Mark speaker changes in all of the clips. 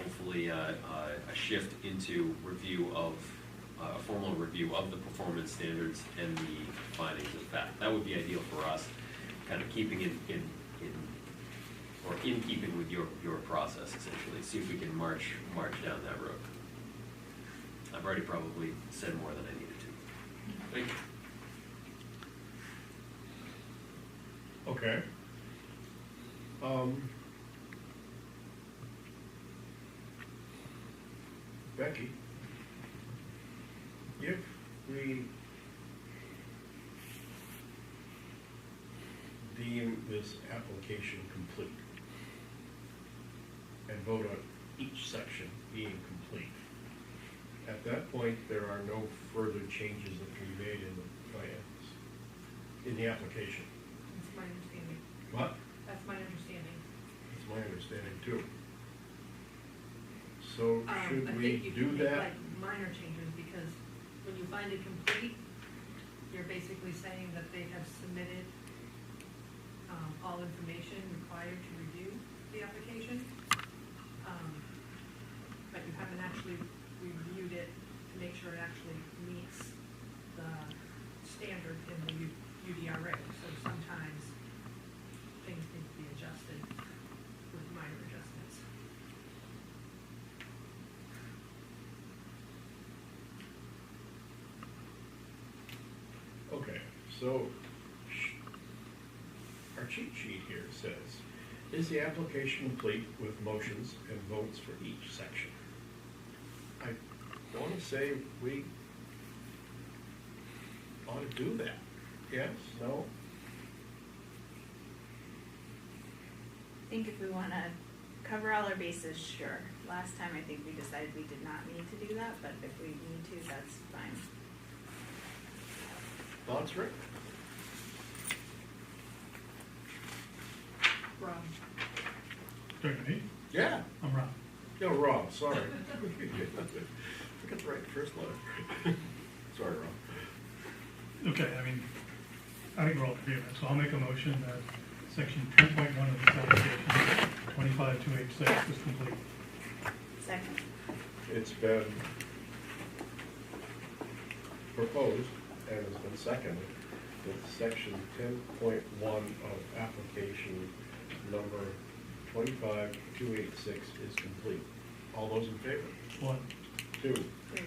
Speaker 1: essentially a, uh, a- a shift into review of, uh, a formal review of the performance standards and the findings of fact. That would be ideal for us, kind of keeping in, in, in, or in keeping with your, your process essentially. See if we can march, march down that road. I've already probably said more than I needed to.
Speaker 2: Thank you.
Speaker 3: Okay. Um, Becky, if we deem this application complete and vote on each section being complete, at that point, there are no further changes that can be made in the plans, in the application.
Speaker 4: That's my understanding.
Speaker 3: But
Speaker 4: That's my understanding.
Speaker 3: That's my understanding too. So
Speaker 4: Um, I
Speaker 3: should
Speaker 4: think
Speaker 3: we
Speaker 4: you can
Speaker 3: do
Speaker 4: make,
Speaker 3: that?
Speaker 4: like, Minor changes, because when you find it complete, you're basically saying that they have submitted, um, all information required to review the application. Um, But you haven't actually reviewed it to make sure it actually meets the standard in the U- UDRA. So sometimes things need to be adjusted with minor adjustments.
Speaker 3: Okay, so sh- our cheat sheet here says, is the application complete with motions and votes for each section? I want to say we ought to do that. Yes, no?
Speaker 5: I think if we wanna cover all our bases, sure. Last time, I think we decided we did not need to do that, but if we need to, that's fine.
Speaker 3: Thoughts, Rick?
Speaker 4: Rob?
Speaker 6: Sorry, me?
Speaker 3: Yeah.
Speaker 6: I'm Rob.
Speaker 3: No, Rob, sorry. I got the right first letter. Sorry, Rob.
Speaker 6: Okay, I mean, I think we're all in agreement, so I'll make a motion that section ten point one of this application, twenty-five two eight six is complete.
Speaker 5: Second.
Speaker 3: It's been proposed and has been seconded that section ten point one of application number twenty-five two eight six is complete. All those in favor?
Speaker 6: One,
Speaker 3: Two,
Speaker 5: Three.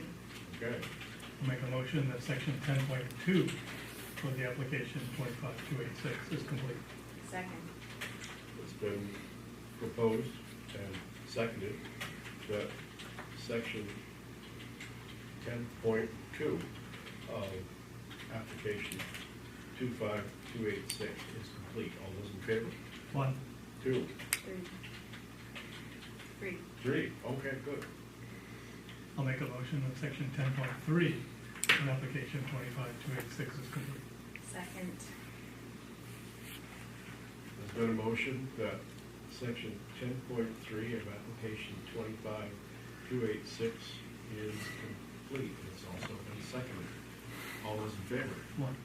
Speaker 3: okay.
Speaker 6: I'll make a motion that section ten point two of the application, twenty-five two eight six is complete.
Speaker 5: Second.
Speaker 3: It's been proposed and seconded that section ten point two of application two five two eight six is complete. All those in favor?
Speaker 6: One,
Speaker 3: Two,
Speaker 5: Three. Three.
Speaker 3: three, okay, good.
Speaker 6: I'll make a motion that section ten point three of application, twenty-five two eight six is complete.
Speaker 5: Second.
Speaker 3: There's been a motion that section ten point three of application twenty-five two eight six is complete. It's also been seconded. All those in favor?
Speaker 6: One,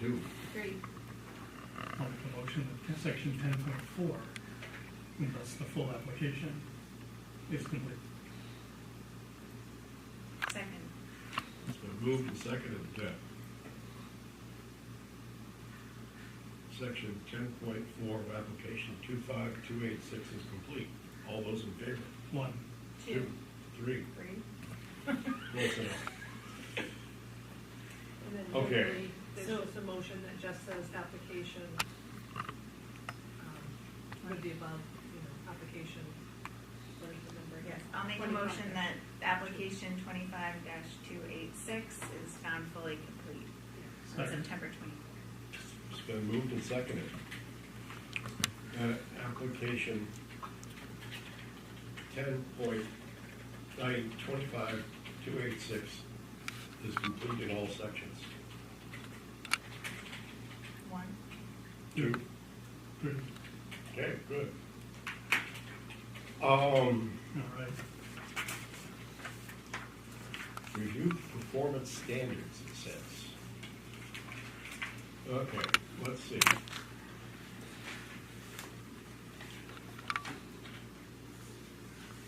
Speaker 3: Two,
Speaker 5: Three.
Speaker 6: I'll make a motion that section ten point four, and thus the full application, is complete.
Speaker 5: Second.
Speaker 3: It's been moved and seconded that section ten point four of application two five two eight six is complete. All those in favor?
Speaker 6: One,
Speaker 3: Two, three,
Speaker 5: Three.
Speaker 3: close enough.
Speaker 4: And then
Speaker 3: Okay.
Speaker 4: usually, there's just a motion that just says application, um, would be above, you know, application, what is the number?
Speaker 5: Yes, I'll make a
Speaker 4: 25.
Speaker 5: motion that application twenty-five two eight six is found fully complete on
Speaker 6: Second.
Speaker 5: September twenty-fourth.
Speaker 3: It's been moved and seconded. That application ten point nine twenty-five two eight six is complete in all sections.
Speaker 5: One.
Speaker 3: Two.
Speaker 6: three,
Speaker 3: Okay, good. Um,
Speaker 6: all right.
Speaker 3: review performance standards, it says. Okay, let's see.